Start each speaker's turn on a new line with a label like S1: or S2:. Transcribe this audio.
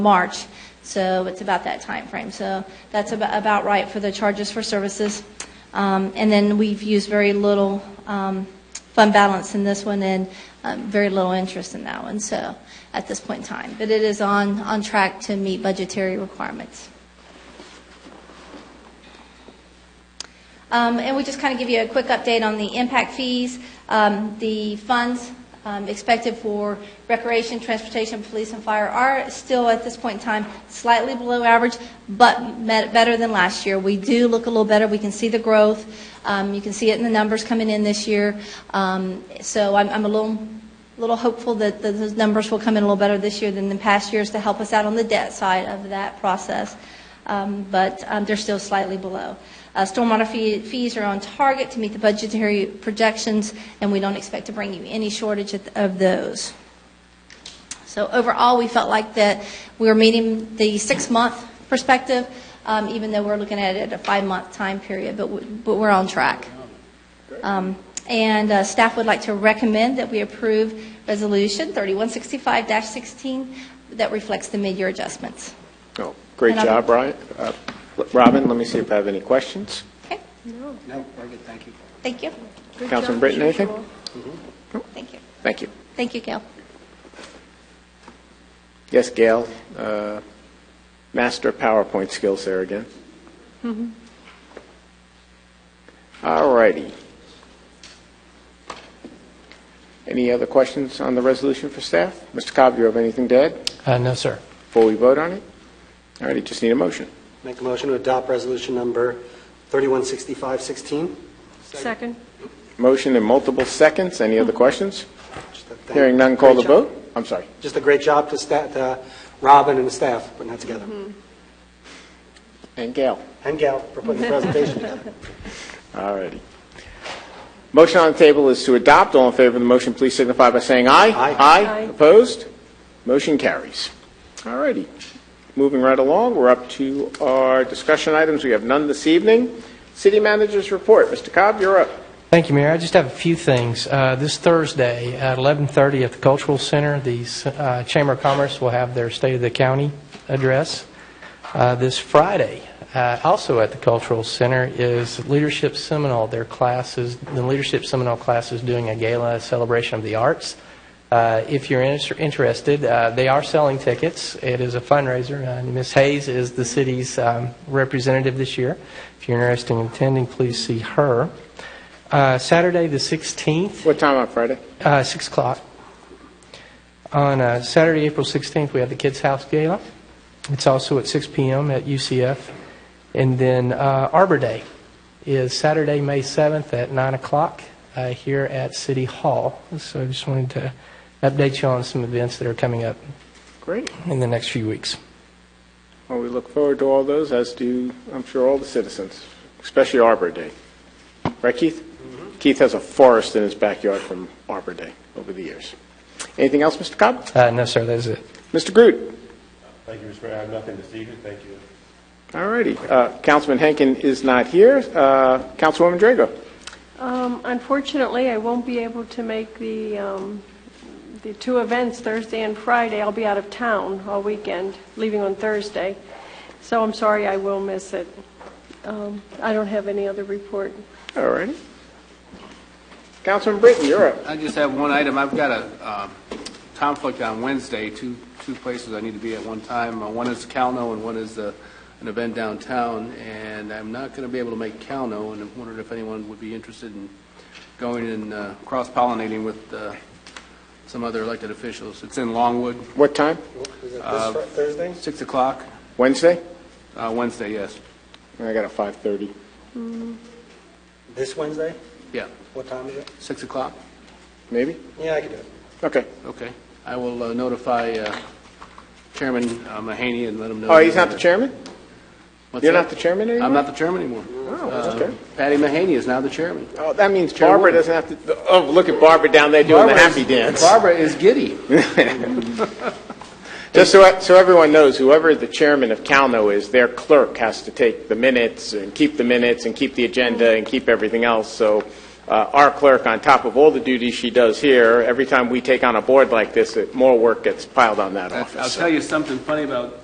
S1: March, so it's about that time frame. So that's ab- about right for the charges for services. Um, And then we've used very little um, fund balance in this one and um, very little interest in that one, so, at this point in time. But it is on, on track to meet budgetary requirements. Um, And we just kind of give you a quick update on the impact fees. Um, The funds um, expected for recreation, transportation, police, and fire are still, at this point in time, slightly below average, but met- better than last year. We do look a little better. We can see the growth. Um, You can see it in the numbers coming in this year. Um, So I'm I'm a little little hopeful that that those numbers will come in a little better this year than the past years to help us out on the debt side of that process, Um, but um, they're still slightly below. Uh, Stormwater fee- fees are on target to meet the budgetary projections, and we don't expect to bring you any shortage of- of those. So overall, we felt like that we were meeting the six-month perspective, um, even though we're looking at it at a five-month time period, but we- but we're on track. Um, And uh, staff would like to recommend that we approve Resolution 3165-16 that reflects the mid-year adjustments.
S2: Oh, great
S1: And I'll-
S2: job, Ryan. Uh, Robin, let me see if I have any questions.
S1: Okay,
S3: No, very good, thank you.
S1: thank you,
S2: Councilman Britton, anything?
S1: thank you.
S2: Thank you.
S1: Thank you, Gail.
S2: Yes, Gail, uh, master PowerPoint skills there again. All righty. Any other questions on the resolution for staff? Mr. Cobb, you have anything to add
S4: Uh, No, sir.
S2: before we vote on it? All righty, just need a motion.
S3: Make a motion to adopt resolution number 316516.
S5: Second.
S2: Motion in multiple seconds. Any other questions?
S3: Just a thank-
S2: Hearing none, call the
S3: great job-
S2: vote. I'm sorry.
S3: Just a great job to sta- to Robin and the staff putting that together.
S2: And Gail.
S3: And Gal for putting the presentation together.
S2: All righty. Motion on the table is to adopt. All in favor of the motion, please signify by saying aye.
S3: Aye.
S5: Aye.
S2: Opposed? Motion carries. All righty. Moving right along, we're up to our discussion items. We have none this evening. City Manager's Report. Mr. Cobb, you're up.
S4: Thank you, Mayor. I just have a few things. Uh, This Thursday at 11:30 at the Cultural Center, the uh, Chamber of Commerce will have their State of the County address. Uh, This Friday, uh, also at the Cultural Center, is Leadership Seminole. Their class is, the Leadership Seminole class is doing a gala celebration of the arts. Uh, If you're inter- interested, uh, they are selling tickets. It is a fundraiser, and Ms. Hayes is the city's um, representative this year. If you're interested in attending, please see her. Uh, Saturday, the 16th,
S2: What time on Friday?
S4: uh, 6 o'clock. On uh, Saturday, April 16th, we have the Kids House Gala. It's also at 6 p.m. at UCF. And then uh, Arbor Day is Saturday, May 7th at 9 o'clock uh, here at City Hall. So I just wanted to update you on some events that are coming up
S2: Great.
S4: in the next few weeks.
S2: Well, we look forward to all those, as do, I'm sure, all the citizens, especially Arbor Day. Right, Keith? Keith has a forest in his backyard from Arbor Day over the years. Anything else, Mr. Cobb?
S4: Uh, No, sir, that is it.
S2: Mr. Groot?
S6: Thank you, Mr. Mayor. I have nothing this evening. Thank you.
S2: All righty. Uh, Councilman Henkin is not here. Uh, Councilwoman Drago?
S5: Um, Unfortunately, I won't be able to make the, um, the two events, Thursday and Friday. I'll be out of town all weekend, leaving on Thursday. So I'm sorry, I will miss it. Um, I don't have any other report.
S2: All righty. Councilman Britton, you're up.
S7: I just have one item. I've got a um, conflict on Wednesday, two, two places I need to be at one time. Uh, One is Calno and one is uh, an event downtown, and I'm not going to be able to make Calno, and I'm wondering if anyone would be interested in going and uh, cross-pollinating with uh, some other elected officials. It's in Longwood,
S2: What time?
S3: Is it this Fri- Thursday?
S7: 6 o'clock,
S2: Wednesday?
S7: uh, Wednesday, yes.
S2: I got a 5:30.
S3: This Wednesday?
S7: Yeah,
S3: What time is it?
S7: 6 o'clock?
S2: Maybe?
S3: Yeah, I can do it.
S2: Okay.
S7: Okay. I will uh, notify uh, Chairman uh, Mahaney and let him know. uh,
S2: Oh, he's not the chairman?
S7: What's
S2: You're
S7: that?
S2: not the chairman anymore?
S7: I'm not the chairman anymore. Uh,
S2: Oh, okay.
S7: Patty Mahaney is now the chairman.
S2: Oh, that means Barbara doesn't have to, oh, look at Barbara down there doing the
S7: Barbara is-
S2: happy dance.
S7: Barbara is giddy.
S2: Just so, so everyone knows, whoever the chairman of Calno is, their clerk has to take the minutes and keep the minutes and keep the agenda and keep everything else. So uh, uh, our clerk, on top of all the duties she does here, every time we take on a board like this, it- more work gets piled on that
S7: I'll
S2: office.
S7: tell you something funny about